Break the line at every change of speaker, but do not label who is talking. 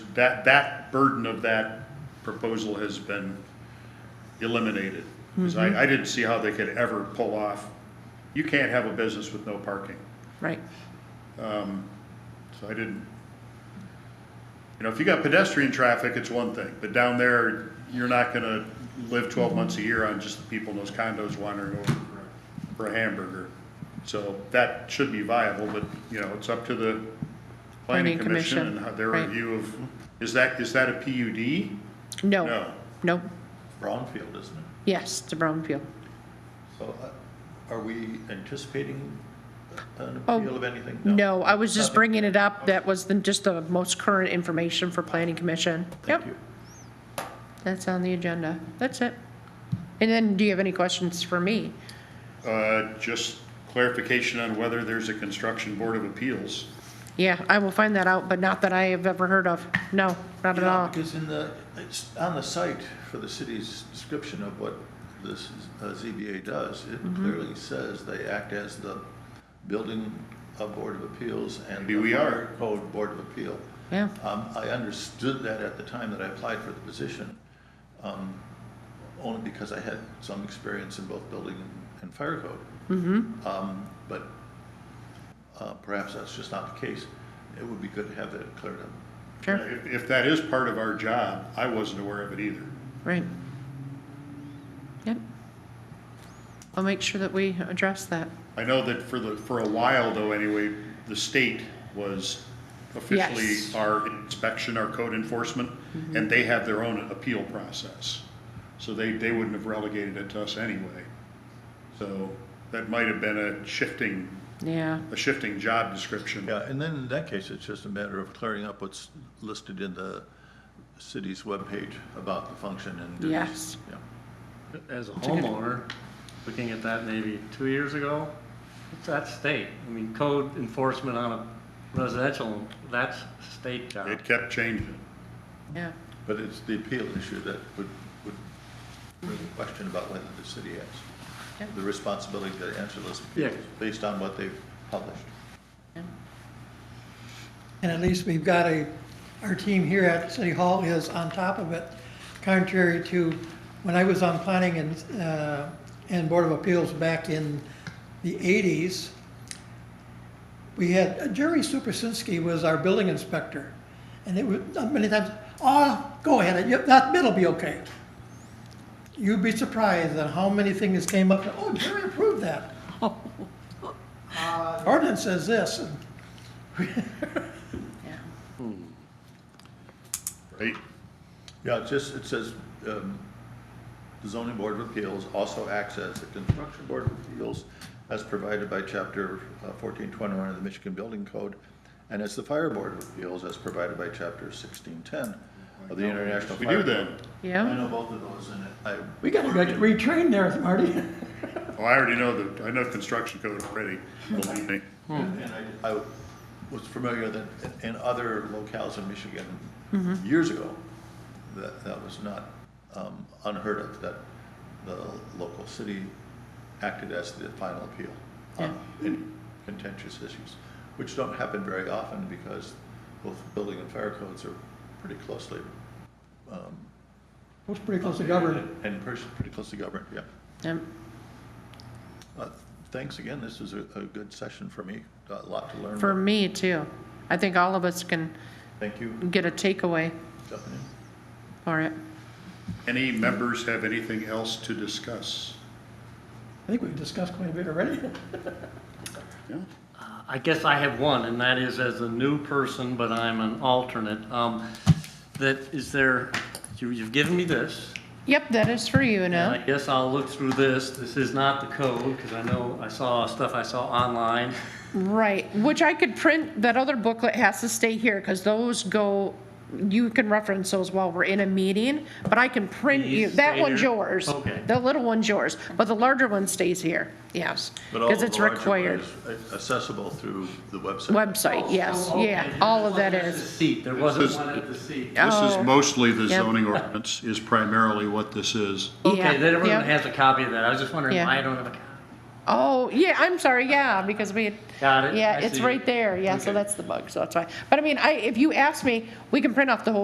that, that burden of that proposal has been eliminated. Because
Mm-hmm.
I, I didn't see how they could ever pull off, you can't have a business with no parking.
right,
So I didn't, you know, if you got pedestrian traffic, it's one thing, but down there, you're not gonna live twelve months a year on just the people in those condos wandering over for- for a hamburger. So that should be viable, but, you know, it's up to the planning
Planning
commission and
commission,
how their
right.
review of, is that, is that a PUD?
no,
No,
no,
Brownfield, isn't it?
yes, it's a brownfield.
So uh, are we anticipating an
Oh,
appeal of anything?
No, I was just
Nothing?
bringing it up, that was the, just the most current information for planning commission.
Thank
Yep,
you.
that's on the agenda, that's it. And then, do you have any questions for me?
uh, just clarification on whether there's a construction board of appeals.
Yeah, I will find that out, but not that I have ever heard of, no, not at
Yeah,
all.
Because in the, it's on the site for the city's description of what this uh, ZBA does, it
Mm-hmm.
clearly says they act as the building uh, board of appeals and.
Maybe
the
we
Fire
are.
Code Board of Appeal.
Yeah,
Um, I understood that at the time that I applied for the position, um, only because I had some experience in both building and- and fire code. Um, But uh, perhaps that's just not the case. It would be good to have that cleared up.
sure,
If, if that is part of our job, I wasn't aware of it either.
right. Yep. I'll make sure that we address that.
I know that for the, for a while though, anyway, the state was officially
Yes. Mm-hmm.
our inspection, our code enforcement, and they have their own appeal process. So they, they wouldn't have relegated it to us anyway. So that might have been a shifting,
Yeah,
a shifting job description.
Yeah, and then in that case, it's just a matter of clearing up what's listed in the city's webpage about the function and duties.
Yes.
Yeah.
As a homeowner, looking at that maybe two years ago, it's at state. I mean, code enforcement on a residential, that's state job.
It kept changing.
yeah,
But it's the appeal issue that would, would bring a question about whether the city
Yeah.
has the responsibility to answer those appeals
Yeah.
based on what they've published.
And at least we've got a, our team here at City Hall is on top of it, contrary to when I was on planning and, uh, and Board of Appeals back in the eighties. We had, uh, Jerry Supersinski was our building inspector, and it was, uh, many times, oh, go ahead, you- that bid'll be okay. You'd be surprised at how many things came up, oh, Jerry approved that. Ordinance says this, and
yeah.
Right?
Yeah, it just, it says, um, the zoning board of appeals also acts as the construction board of appeals as provided by chapter uh, fourteen twenty-one of the Michigan Building Code, and as the fire board of appeals as provided by chapter sixteen ten of the International
We do
Fire. Code.
then.
I
Yeah,
know both of those, and I.
We gotta get retrained there, Marty.
Oh, I already know the, I know construction code already, believe me.
And I, I was familiar that in other locales in Michigan, years ago, that, that was not um, unheard of, that the local city acted as the final appeal on in contentious issues, which don't happen very often because both building and fire codes are pretty closely,
Looks pretty close to government.
and pretty pretty closely governed, yeah.
yeah,
Uh, Thanks again, this was a, a good session for me, a lot to learn.
for me too. I think all of us can
Thank you,
get a takeaway
Stephanie.
for it.
Any members have anything else to discuss?
I think we've discussed quite a bit already.
Yeah?
I guess I have one, and that is as a new person, but I'm an alternate. Um, That, is there, you- you've given me this,
Yep, that is for you,
And I
Anil.
guess I'll look through this. This is not the code, because I know, I saw stuff I saw online.
Right, which I could print, that other booklet has to stay here, because those go, you can reference those while we're in a meeting, but I can print you,
These
that
stay
one's
here?
yours.
Okay.
The little one's yours, but the larger one stays here, yes,
But all
because
of
it's
the larger one
required.
is Accessible through the website.
Website, yes, yeah, all of that
Oh, There's a
is.
Seat, there wasn't
is-
one at the seat.
This
Oh.
is mostly the
Yep.
zoning ordinance is primarily what this is.
Yeah,
Okay, then everyone
yep.
has a copy of that. I was just wondering
Yeah.
why I don't have a copy.
Oh, yeah, I'm sorry, yeah, because we. had-
Got it.
Yeah,
I
it's
see.
right there, yeah, so
Okay.
that's the bug, so that's why. But I mean, I, if you ask me, we can print off the whole